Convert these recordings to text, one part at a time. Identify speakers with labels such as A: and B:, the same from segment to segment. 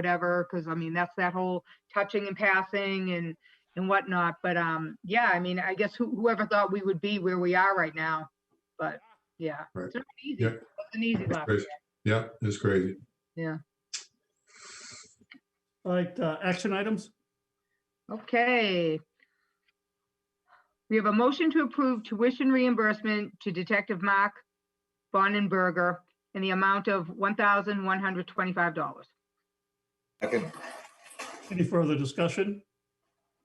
A: whatever, because I mean, that's that whole touching and passing and, and whatnot. But, um, yeah, I mean, I guess who- whoever thought we would be where we are right now, but, yeah.
B: Right.
A: It's not easy.
B: Yeah.
A: It's an easy
B: It's
A: left.
B: crazy. Yeah, it's crazy.
C: All right, uh, action items?
A: Okay. We have a motion to approve tuition reimbursement to Detective Mark Bonenberger in the amount of $1,125.
D: Second,
C: Any further discussion?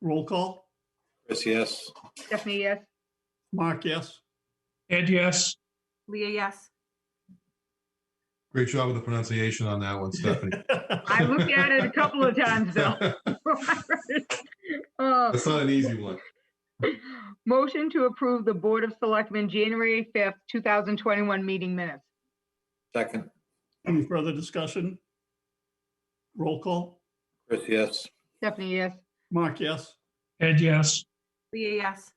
C: Roll call.
D: Chris, yes.
A: Stephanie, yes?
C: Mark, yes.
E: Ed, yes.
F: Leah, yes.
B: Great job with the pronunciation on that one, Stephanie.
A: I looked at it a couple of times, though. Oh.
B: That's not an easy one.
A: Motion to approve the Board of Selectmen January 5th, 2021 meeting minutes.
D: Second,
C: Any further discussion? Roll call.
D: Chris, yes.
A: Stephanie, yes?
C: Mark, yes.
E: Ed, yes.
F: Leah, yes.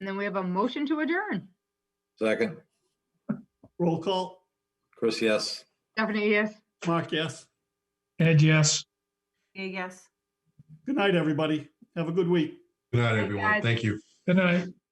A: And then we have a motion to adjourn.
D: Second,
C: Roll call.
D: Chris, yes.
A: Stephanie, yes?
C: Mark, yes.
E: Ed, yes.
F: Leah, yes.
C: Good night, everybody. Have a good week.
B: Good night,
A: Thanks,
B: everyone.
A: guys.
B: Thank you.
E: Good night.